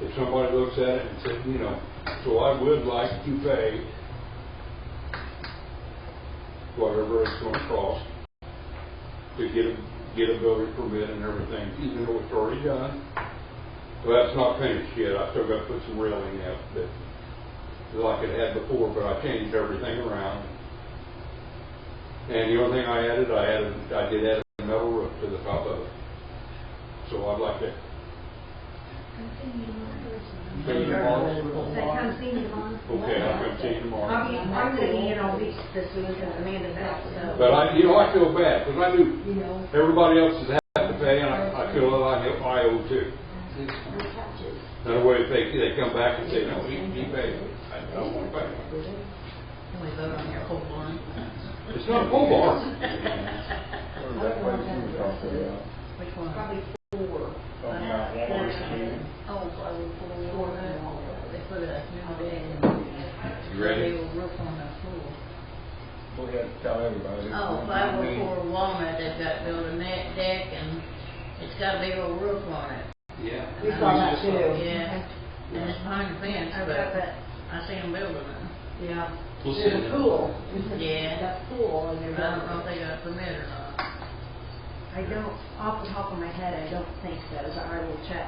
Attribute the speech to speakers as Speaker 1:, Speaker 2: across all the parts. Speaker 1: if somebody looks at it and said, you know, so I would like to pay whatever it's gonna cost to get a, get a building permit and everything, even though it's already done. Well, that's not finished yet, I still gotta put some railing up, but like it had before, but I changed everything around. And the only thing I added, I added, I did add a metal roof to the top of it. So I'd like to Say tomorrow.
Speaker 2: They come see me tomorrow.
Speaker 1: Okay, I'll come see you
Speaker 2: I'll be,
Speaker 1: tomorrow.
Speaker 2: I'm gonna be in on beach this week and Amanda back, so.
Speaker 1: But I, you know, I feel bad, because I do,
Speaker 2: You know,
Speaker 1: everybody else has had to pay, and I, I feel that I, I owe too.
Speaker 2: the couches.
Speaker 1: Another way, if they, they come back and say, no, he, he paid, I don't want to pay.
Speaker 3: Can we vote on your whole one?
Speaker 1: It's not a full bar.
Speaker 3: Which one?
Speaker 2: Probably four.
Speaker 3: Uh, Oh, I would pull the order. They put a new bed in.
Speaker 1: You ready?
Speaker 3: They were roof on the floor.
Speaker 4: Go ahead, tell everybody.
Speaker 3: Oh, five oh four Walnut, they've got built a net deck and it's got a big old roof on it.
Speaker 1: Yeah.
Speaker 5: We saw that too.
Speaker 3: Yeah, and it's behind the fence,
Speaker 2: I've got
Speaker 3: but
Speaker 2: that,
Speaker 3: I see them building it.
Speaker 2: yeah.
Speaker 1: We'll see.
Speaker 5: There's a pool.
Speaker 3: Yeah,
Speaker 5: That pool and
Speaker 3: but
Speaker 5: there's
Speaker 3: I don't know
Speaker 5: a.
Speaker 3: if they got a permit or not.
Speaker 2: I don't, off the top of my head, I don't think so, so I will check.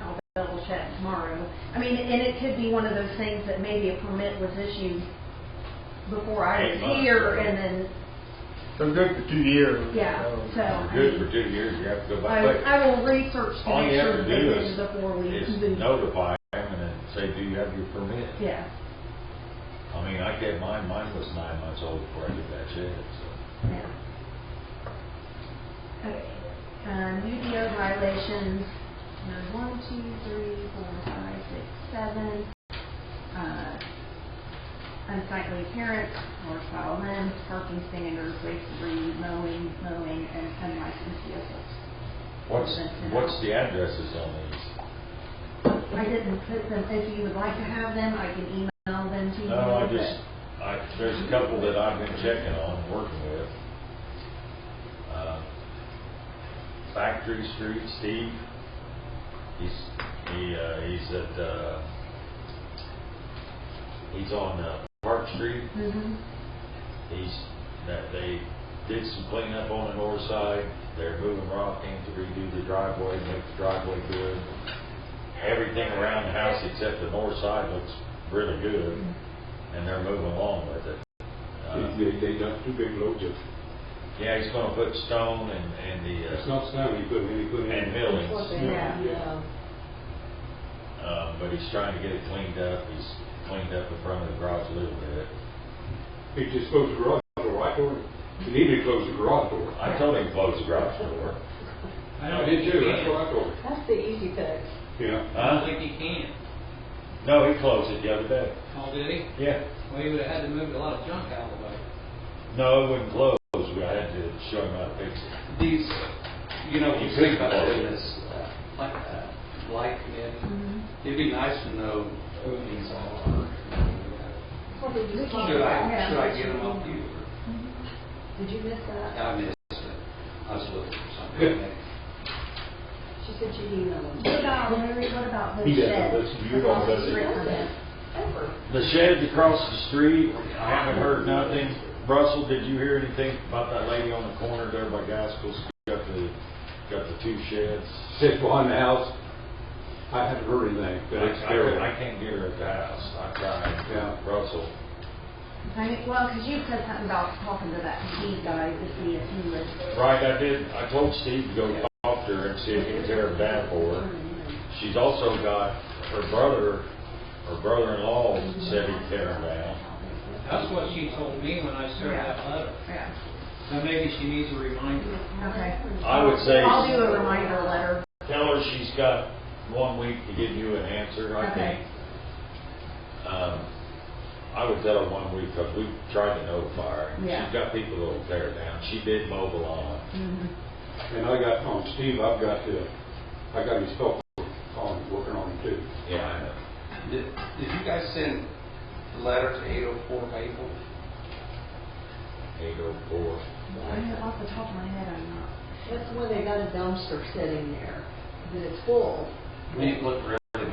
Speaker 2: I'll double check tomorrow. I mean, and it could be one of those things that maybe a permit was issued before I
Speaker 6: Eight
Speaker 2: was
Speaker 6: months
Speaker 2: here,
Speaker 6: ago.
Speaker 2: and then,
Speaker 4: They're good for two years.
Speaker 2: yeah,
Speaker 4: Um,
Speaker 2: so. I mean,
Speaker 6: Good for two years, you have to go
Speaker 2: I,
Speaker 6: back. But
Speaker 2: I will research to
Speaker 6: All
Speaker 2: make
Speaker 6: you have
Speaker 2: sure that
Speaker 6: to
Speaker 2: they
Speaker 6: do
Speaker 2: did
Speaker 6: is-
Speaker 2: it before we
Speaker 6: Just
Speaker 2: move.
Speaker 6: notify them and then say, do you have your permit?
Speaker 2: Yeah,
Speaker 6: I mean, I get mine, mine was nine months old before I did that shit, so.
Speaker 2: yeah. Okay, um, UDO violations, there's one, two, three, four, five, six, seven. Uh, unsightly parents, or foul men, parking standards, waste, mowing, mowing, and unlicensed vehicles.
Speaker 6: What's, what's the addresses on these?
Speaker 2: I didn't put them, if you would like to have them, I can email them to you.
Speaker 6: No, I
Speaker 1: Oh,
Speaker 2: but-
Speaker 6: just, I, there's a couple that I've been checking on, working with. Uh, Factory Street, Steve, he's, he, uh, he's at, uh, he's on, uh, Park Street.
Speaker 2: Mhm.
Speaker 6: He's, that they did some cleanup on the north side, they're moving rock in to redo the driveway, make the driveway good. Everything around the house except the north side looks really good, and they're moving along with it. Uh,
Speaker 1: They, they dumped two big loads of,
Speaker 6: Yeah, he's gonna put stone and, and the,
Speaker 1: it's
Speaker 6: uh,
Speaker 1: not snow, you put, you put in.
Speaker 6: and millings,
Speaker 5: Yeah.
Speaker 1: Yeah.
Speaker 6: uh, but he's trying to get it cleaned up, he's cleaned up the front of the garage a little bit.
Speaker 1: He just closed the garage door, I told him, you need to close the garage door.
Speaker 6: I told him to close the garage door.
Speaker 1: I did too, that's what I told him,
Speaker 5: That's the easy fix.
Speaker 1: yeah.
Speaker 7: I don't
Speaker 6: Huh?
Speaker 7: think he can.
Speaker 6: No, he closed it the other day.
Speaker 7: Oh, did he?
Speaker 6: Yeah.
Speaker 7: Well, he would've had to move a lot of junk out of the way.
Speaker 6: No, it wouldn't close, we had to show him how to fix it.
Speaker 7: These, you know, when you think about
Speaker 6: Yeah.
Speaker 7: doing this, uh, like, uh, light in, it'd be nice to know who these all are.
Speaker 5: We can't-
Speaker 7: Should I, should I get them off you?
Speaker 5: Did you miss
Speaker 7: or-
Speaker 5: that?
Speaker 7: I missed it. I was looking for something.
Speaker 5: She said she emailed
Speaker 2: What
Speaker 5: them.
Speaker 2: about, Larry, what about the shed?
Speaker 1: He doesn't listen to you at all, does he?
Speaker 2: Across the street
Speaker 5: Ever.
Speaker 6: The shed across the street, I haven't heard nothing. Russell, did you hear anything about that lady on the corner there by Gaskell's? Got the, got the two sheds.
Speaker 1: Sit behind the house, I haven't heard anything,
Speaker 6: I,
Speaker 1: but it's
Speaker 6: I I
Speaker 1: terrible.
Speaker 6: can't get her at the house, I tried.
Speaker 1: Yeah.
Speaker 6: Russell,
Speaker 2: I mean, well, because you said something about talking to that Steve guy to see if he was.
Speaker 6: right, I did, I told Steve to go talk to her and see if he can tear it down for her. She's also got, her brother, her brother-in-law said he'd tear it down.
Speaker 7: That's what she told me when I sent her that letter.
Speaker 2: Yeah.
Speaker 7: Now, maybe she needs a reminder.
Speaker 2: Okay.
Speaker 6: I would say-
Speaker 2: I'll do a reminder letter.
Speaker 6: Tell her she's got one week to give you an answer, I
Speaker 2: Okay.
Speaker 6: think. Um, I would tell her one week, because we tried to notify her.
Speaker 2: Yeah.
Speaker 6: She's got people that'll tear it down. She did mobile on.
Speaker 2: Mm-hmm.
Speaker 1: And I got, on Steve, I've got, uh, I got his phone, on, working on him too.
Speaker 6: Yeah, I know.
Speaker 7: Did, did you guys send the letter to eight oh four Maple?
Speaker 6: Eight oh four.
Speaker 2: I- Off the top of my head, I'm not.
Speaker 5: That's the one they got a dumpster sitting there, that it's full.
Speaker 7: It looked real